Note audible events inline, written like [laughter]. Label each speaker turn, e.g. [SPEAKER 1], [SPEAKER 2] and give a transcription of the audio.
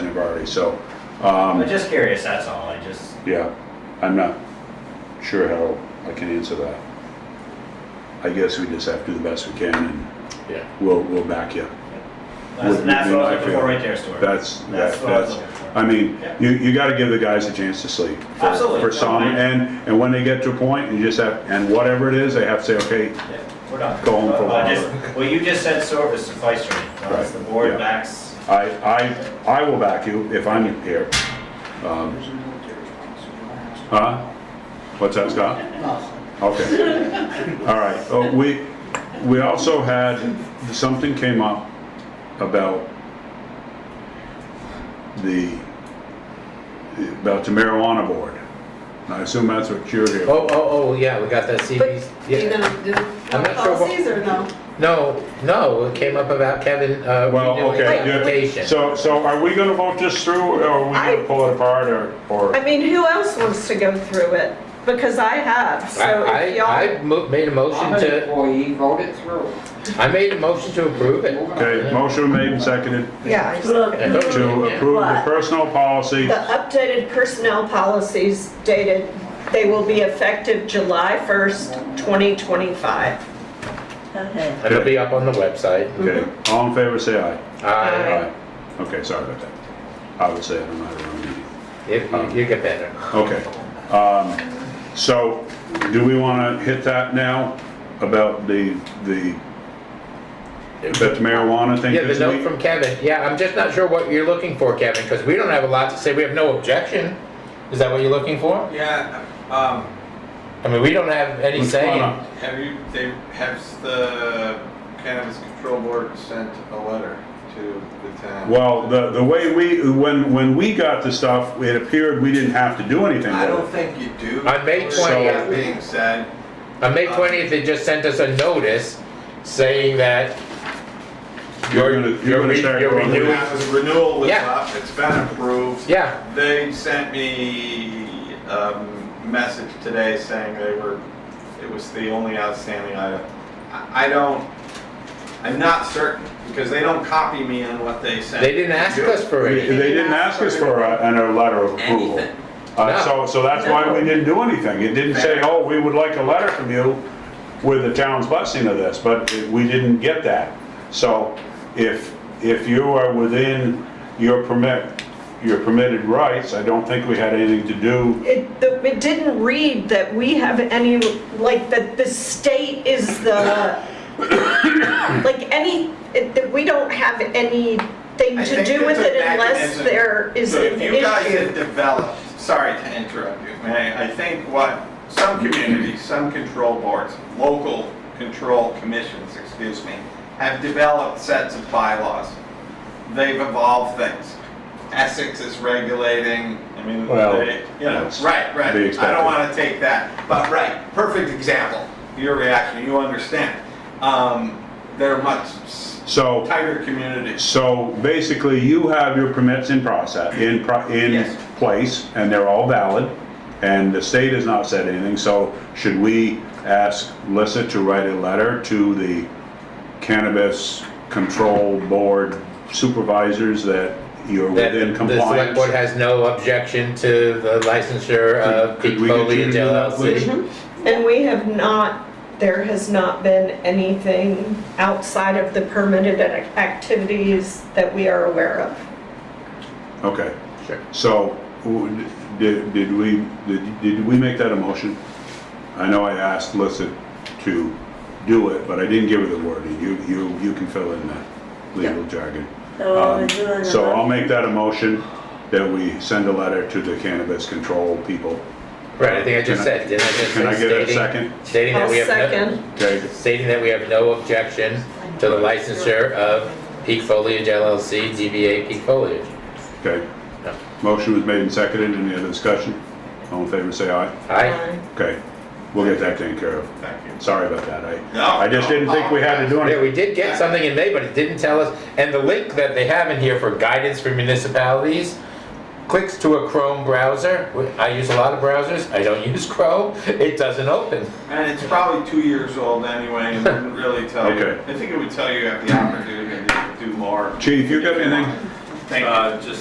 [SPEAKER 1] we've already, so, um,
[SPEAKER 2] I'm just curious, that's all, I just,
[SPEAKER 1] yeah, I'm not sure how I can answer that. I guess we just have to do the best we can and
[SPEAKER 3] Yeah.
[SPEAKER 1] we'll, we'll back you.
[SPEAKER 2] that's,
[SPEAKER 1] Would-
[SPEAKER 2] that's
[SPEAKER 1] would
[SPEAKER 2] what I
[SPEAKER 1] I
[SPEAKER 2] was looking for
[SPEAKER 1] feel-
[SPEAKER 2] right there, Stuart.
[SPEAKER 1] That's, that-
[SPEAKER 2] That's what I was
[SPEAKER 1] that's,
[SPEAKER 2] looking for.
[SPEAKER 1] I mean,
[SPEAKER 2] Yeah.
[SPEAKER 1] you, you gotta give the guys a chance to sleep. for-
[SPEAKER 2] Absolutely.
[SPEAKER 1] For
[SPEAKER 2] No,
[SPEAKER 1] some,
[SPEAKER 2] I-
[SPEAKER 1] and, and when they get to a point, you just have, and whatever it is, they have to say, okay,
[SPEAKER 2] Yeah, We're done.
[SPEAKER 1] Go home for a
[SPEAKER 2] Well, I
[SPEAKER 1] while.
[SPEAKER 2] just- Well, you just said service suffice for me,
[SPEAKER 1] Right,
[SPEAKER 2] the board
[SPEAKER 1] yeah.
[SPEAKER 2] backs,
[SPEAKER 1] I, I, I will back you if I'm here. Um,
[SPEAKER 4] There's a military response.
[SPEAKER 1] Huh? What's that, Scott?
[SPEAKER 4] Nothing.
[SPEAKER 1] Okay. All right. Oh, we, we also had, something came up about the, about the marijuana board. And I assume that's what you're here
[SPEAKER 3] Oh,
[SPEAKER 1] for.
[SPEAKER 3] oh, oh, yeah, we got the
[SPEAKER 5] But
[SPEAKER 3] CB's.
[SPEAKER 5] you're
[SPEAKER 3] yeah.
[SPEAKER 5] gonna do
[SPEAKER 3] I'm not sure what-
[SPEAKER 5] policies or no?
[SPEAKER 3] No, no, it came up about Kevin, uh,
[SPEAKER 1] Well,
[SPEAKER 3] redoing the
[SPEAKER 1] okay, yeah.
[SPEAKER 3] application.
[SPEAKER 1] So, so are we gonna vote this through or are we
[SPEAKER 5] I-
[SPEAKER 1] gonna pull it apart or,
[SPEAKER 5] I
[SPEAKER 1] or?
[SPEAKER 5] mean, who else wants to go through it? Because I have, so if
[SPEAKER 3] I, I,
[SPEAKER 5] y'all,
[SPEAKER 3] I mo- made a motion
[SPEAKER 4] I'm an
[SPEAKER 3] to,
[SPEAKER 4] employee, vote it through.
[SPEAKER 3] I made a motion to approve it.
[SPEAKER 1] Okay, motion made and seconded
[SPEAKER 5] yeah. I just-
[SPEAKER 6] Look,
[SPEAKER 3] Yeah.
[SPEAKER 1] to approve the personal policy.
[SPEAKER 5] The uh, updated personnel policies dated, they will be effective July 1st, 2025.
[SPEAKER 6] okay.
[SPEAKER 3] And It'll be up on the website.
[SPEAKER 1] Okay,
[SPEAKER 5] mm-hmm.
[SPEAKER 1] all in favor, say aye.
[SPEAKER 3] Uh,
[SPEAKER 5] Aye.
[SPEAKER 1] Aye. Okay, sorry about that. I would say it on my own meeting.
[SPEAKER 3] if you- you get better.
[SPEAKER 1] Okay. um, So, do we want to hit that now about the, the, about the marijuana thing?
[SPEAKER 3] Yeah, the
[SPEAKER 1] this
[SPEAKER 3] note
[SPEAKER 1] week?
[SPEAKER 3] from Kevin, yeah, I'm just not sure what you're looking for, Kevin, because we don't have a lot to say, we have no objection. Is that what you're looking for?
[SPEAKER 7] Yeah, um,
[SPEAKER 3] I mean, we don't have any
[SPEAKER 1] What's
[SPEAKER 3] say.
[SPEAKER 1] going
[SPEAKER 3] in-
[SPEAKER 1] on?
[SPEAKER 7] have you, they, has the cannabis control board sent a letter to the town?
[SPEAKER 1] Well, the, the way we, when, when we got the stuff, it appeared we didn't have to do anything
[SPEAKER 7] I don't
[SPEAKER 1] with it.
[SPEAKER 7] think you do.
[SPEAKER 3] On May
[SPEAKER 7] It's
[SPEAKER 3] 20th.
[SPEAKER 7] Being said,
[SPEAKER 3] On May twentieth, they just sent us a notice saying that
[SPEAKER 1] You're gonna- you're gonna
[SPEAKER 3] re-
[SPEAKER 1] start
[SPEAKER 3] you're
[SPEAKER 1] going
[SPEAKER 3] renewing-
[SPEAKER 1] with-
[SPEAKER 7] that was renewal was
[SPEAKER 3] Yeah.
[SPEAKER 7] up, it's been approved.
[SPEAKER 3] Yeah,
[SPEAKER 7] They sent me, um, message today saying they were, it was the only outstanding item. I I don't, I'm not certain, because they don't copy me on what they sent.
[SPEAKER 3] they didn't ask us for
[SPEAKER 1] They
[SPEAKER 3] it.
[SPEAKER 1] they didn't ask us for a, and a letter of approval.
[SPEAKER 7] Anything.
[SPEAKER 1] Uh, So, so that's why we didn't do anything. It didn't say, oh, we would like a letter from you with the town's blessing of this, but it- we didn't get that. So if, if you are within your permit, your permitted rights, I don't think we had anything to do.
[SPEAKER 5] It, the- it didn't read that we have any, like, that the state is the, like, any, it- that we don't have anything
[SPEAKER 7] I
[SPEAKER 5] to
[SPEAKER 7] think
[SPEAKER 5] do with
[SPEAKER 7] it's a
[SPEAKER 5] it unless
[SPEAKER 7] mechanism.
[SPEAKER 5] there is
[SPEAKER 7] So
[SPEAKER 5] an
[SPEAKER 7] if you guys had
[SPEAKER 5] issue.
[SPEAKER 7] developed, sorry to interrupt you, may I, I think what some communities, some control boards, local control commissions, excuse me, have developed sets of bylaws. They've evolved things. Essex is regulating, I mean,
[SPEAKER 1] Well,
[SPEAKER 7] they, you know,
[SPEAKER 1] that's
[SPEAKER 7] right, right.
[SPEAKER 1] to be
[SPEAKER 7] I
[SPEAKER 1] expected.
[SPEAKER 7] don't want to take that, but right, perfect example. Your reaction, you understand. Um, they're much s-
[SPEAKER 1] So,
[SPEAKER 7] tighter communities.
[SPEAKER 1] so basically you have your permits in process, in, pro- in
[SPEAKER 7] Yes.
[SPEAKER 1] place, and they're all valid. And the state has not said anything, so should we ask Lissa to write a letter to the cannabis control board supervisors that you're
[SPEAKER 3] That
[SPEAKER 1] within
[SPEAKER 3] the select
[SPEAKER 1] compliance?
[SPEAKER 3] board has no objection to the licensure of
[SPEAKER 1] Could-
[SPEAKER 3] Pete
[SPEAKER 1] could we get
[SPEAKER 3] uh, Foley
[SPEAKER 1] you
[SPEAKER 3] and
[SPEAKER 1] to do that, please?
[SPEAKER 3] LLC.
[SPEAKER 5] And we have not, there has not been anything outside of the permitted ac- activities that we are aware of.
[SPEAKER 1] Okay,
[SPEAKER 3] Sure.
[SPEAKER 1] so, w- did, did we, did, did we make that a motion? I know I asked Lissa to do it, but I didn't give her the wording, you, you, you can fill in that legal jargon.
[SPEAKER 6] So what we're
[SPEAKER 1] Um,
[SPEAKER 6] doing is-
[SPEAKER 1] So I'll make that a motion that we send a letter to the cannabis control people.
[SPEAKER 3] Right, I think I just
[SPEAKER 1] Can I-
[SPEAKER 3] said, didn't I just
[SPEAKER 1] Can I
[SPEAKER 3] say
[SPEAKER 1] get a
[SPEAKER 3] stating,
[SPEAKER 1] second?
[SPEAKER 3] stating that
[SPEAKER 5] I'll
[SPEAKER 3] we have no,
[SPEAKER 5] second.
[SPEAKER 1] Okay,
[SPEAKER 3] stating that we have no objection to the licensure of Peak Foliage LLC, DBA Peak Foliage.
[SPEAKER 1] okay.
[SPEAKER 3] No.
[SPEAKER 1] Motion was made and seconded, any other discussion? All in favor, say aye.
[SPEAKER 3] Aye,
[SPEAKER 1] Okay, we'll get that taken care of.
[SPEAKER 7] Thank you.
[SPEAKER 1] Sorry about that, I,
[SPEAKER 7] No,
[SPEAKER 1] I just
[SPEAKER 7] no,
[SPEAKER 1] didn't think we had to do anything.
[SPEAKER 3] yeah, we did get something in May, but it didn't tell us, and the link that they have in here for guidance for municipalities clicks to a Chrome browser, I use a lot of browsers, I don't [laughs] use Chrome, it doesn't open.
[SPEAKER 7] And Oh, it's probably two years old
[SPEAKER 1] [laughs]
[SPEAKER 7] anyway, and wouldn't really tell you.
[SPEAKER 1] Okay.
[SPEAKER 7] I think it would tell you you have the opportunity to do more.
[SPEAKER 1] Chief, you got anything?
[SPEAKER 7] Thank you.
[SPEAKER 8] Uh, just